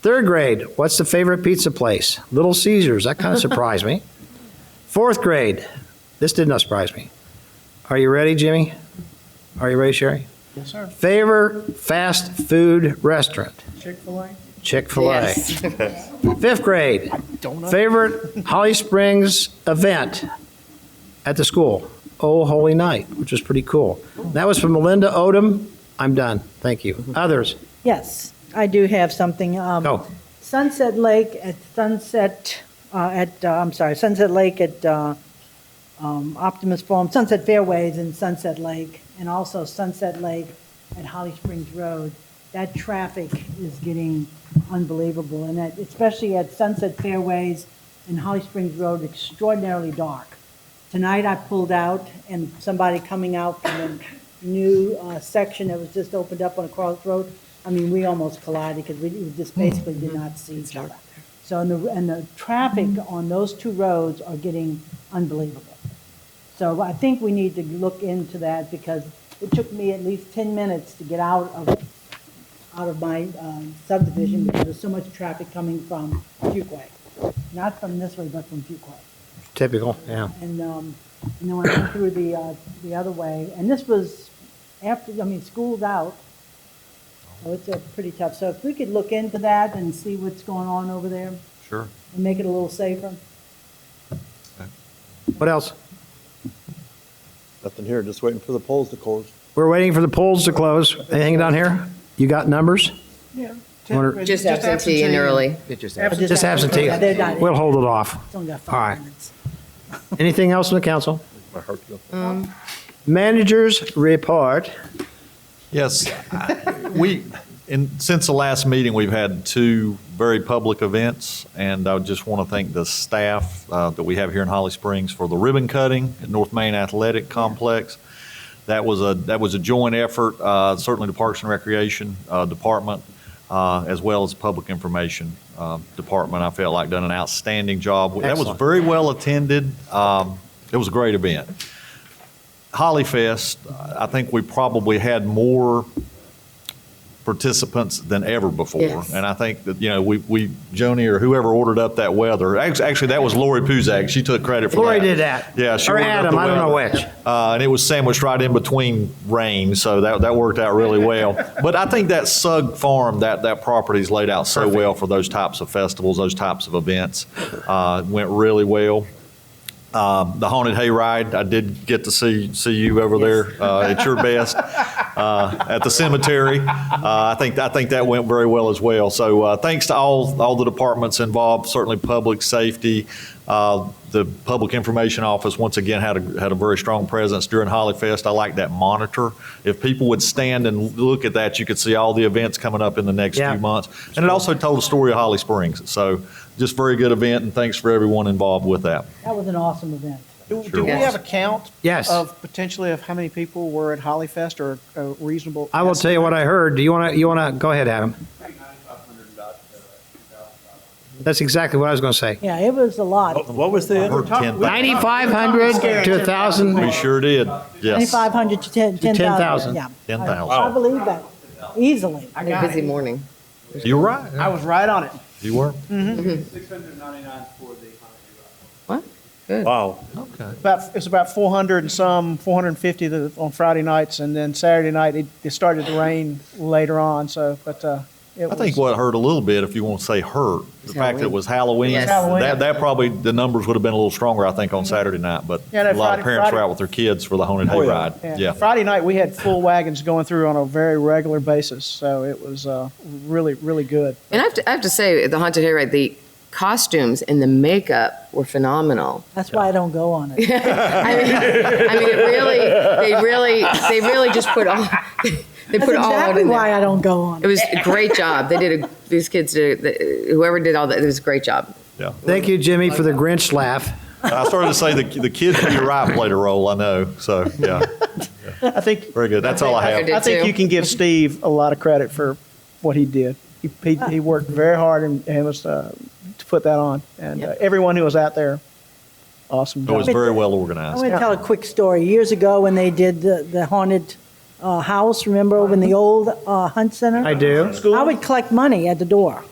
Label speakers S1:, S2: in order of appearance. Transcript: S1: Third grade, what's the favorite pizza place? Little Caesars. That kind of surprised me. Fourth grade, this did not surprise me. Are you ready, Jimmy? Are you ready, Sherry?
S2: Yes, sir.
S1: Favorite fast food restaurant?
S2: Chick-fil-A?
S1: Chick fil A.
S3: Yes.
S1: Fifth grade, favorite Holly Springs event at the school? Oh Holy Night, which was pretty cool. That was from Melinda Odom. I'm done. Thank you. Others?
S4: Yes, I do have something. Um,
S1: Go.
S4: Sunset Lake at Sunset, uh, at, uh, I'm sorry, Sunset Lake at uh, um, Optimus Farm, Sunset Fairways in Sunset Lake, and also Sunset Lake at Holly Springs Road. That traffic is getting unbelievable, and that, especially at Sunset Fairways and Holly Springs Road, extraordinarily dark. Tonight, I pulled out, and somebody coming out from a new uh, section that was just opened up on a crossroad, I mean, we almost collided because we we just basically did not see each other. So, and the, and the traffic on those two roads are getting unbelievable. So I think we need to look into that because it took me at least 10 minutes to get out of, out of my um, subdivision because there's so much traffic coming from Fuquay. Not from this way, but from Fuquay.
S1: Typical, yeah.
S4: And, um, and then when I went through the, uh, the other way, and this was after, I mean, school's out. So it's a pretty tough, so if we could look into that and see what's going on over there
S5: Sure.
S4: and make it a little safer.
S1: What else?
S2: Nothing here, just waiting for the polls to close.
S1: We're waiting for the polls to close. Anything down here? You got numbers?
S2: Yeah.
S1: Wonder-
S3: Just absentee and early.
S1: Just absentee.
S4: Yeah, they're not-
S1: We'll hold it off.
S4: It's only got
S1: All right.
S4: five minutes.
S1: Anything else in the council?
S2: My heart goes.
S4: Um,
S1: Managers report.
S5: Yes, I- we, in, since the last meeting, we've had two very public events, and I just want to thank the staff uh, that we have here in Holly Springs for the ribbon cutting at North Main Athletic Complex. That was a, that was a joint effort, uh, certainly the Parks and Recreation uh, Department, uh, as well as Public Information uh, Department, I felt like done an outstanding job. That was
S1: Excellent.
S5: very well attended. Um, It was a great event. Holly Fest, I think we probably had more participants than ever before.
S3: Yes.
S5: And I think that, you know, we, we, Joni or whoever ordered up that weather, act- actually, that was Lori Puzak. She took credit for that.
S1: Lori did that.
S5: Yeah. she
S1: Or
S5: ordered up
S1: Adam,
S5: the
S1: I don't know
S5: weather.
S1: which.
S5: Uh, and it was sandwiched right in between rain, so that, that worked out really well. But I think that Sug Farm, that, that property's laid out so well for those types of festivals, those types of events. Uh, went really well. Um, the haunted hayride, I did get to see, see you over there uh, at your best uh, at the cemetery. Uh, I think I think that went very well as well. So uh, thanks to all all the departments involved. Certainly, public safety, uh, the public information office once again had a had a very strong presence during Holly Fest. I like that monitor. If people would stand and look at that, you could see all the events coming up in the next
S1: Yeah.
S5: few months. And it also told the story of Holly Springs. So just very good event, and thanks for everyone involved with that.
S4: That was an awesome event.
S2: Do do
S5: Sure
S2: we
S5: was.
S2: have a count?
S1: Yes.
S2: Of potentially of how many people were at Holly Fest or a reasonable?
S1: I will tell you what I heard. Do you want to, you want to, go ahead, Adam. That's exactly what I was going to say.
S4: Yeah, it was a lot.
S6: What was the
S5: I heard 10,000.
S1: 9,500 to 1,000.
S5: We sure did. Yes.
S4: 2,500 to 10
S1: To 10,000.
S4: 10,000, yeah.
S5: 10,000.
S4: I I believe that, easily.
S2: I
S3: A
S2: got
S3: busy
S2: it.
S3: morning.
S5: You were right.
S2: I was right on it.
S5: You were.
S7: 699 for the economy.
S3: What?
S6: Wow.
S5: Okay.
S2: About, it's about 400 and some, 450 the- on Friday nights, and then Saturday night, it, it started to rain later on, so, but, uh, it
S5: I
S2: was.
S5: think what hurt a little bit, if you want to say hurt, the fact that it was Halloween,
S3: Yes.
S2: Halloween.
S5: that, that probably, the numbers would have been a little stronger, I think, on Saturday night, but
S2: Yeah, that
S5: a lot
S2: Friday-
S5: of parents were
S2: Friday-
S5: out with their kids for the haunted
S6: Oh, yeah.
S5: hayride. Yeah.
S2: Friday night, we had full wagons going through on a very regular basis, so it was, uh, really, really good.
S3: And I have to, I have to say, the haunted hayride, the costumes and the makeup were phenomenal.
S4: That's why I don't go on it.
S3: I mean, I mean, it really, they really, they really just put all, they
S4: That's
S3: put all out
S4: exactly
S3: in
S4: why
S3: there.
S4: I don't go on
S3: It
S4: it.
S3: was a great job. They did a, these kids did, a- whoever did all that, it was a great job.
S5: Yeah.
S1: Thank you, Jimmy, for the Grinch laugh.
S5: I started to say the, the kids to your right played a role, I know, so, yeah,
S2: I think,
S5: very good. That's all I have.
S3: did
S2: I think
S3: too.
S2: you can give Steve a lot of credit for what he did. He, he, he worked very hard and, and was, uh, to put that on. And uh,
S3: Yep.
S2: everyone who was out there, awesome
S5: It was
S2: job.
S5: very well
S4: I'm
S5: organized.
S4: going to tell a quick story. Years ago, when they did the the haunted uh, house, remember, when the old uh, Hunt Center?
S1: I do.
S4: I would collect money at the door.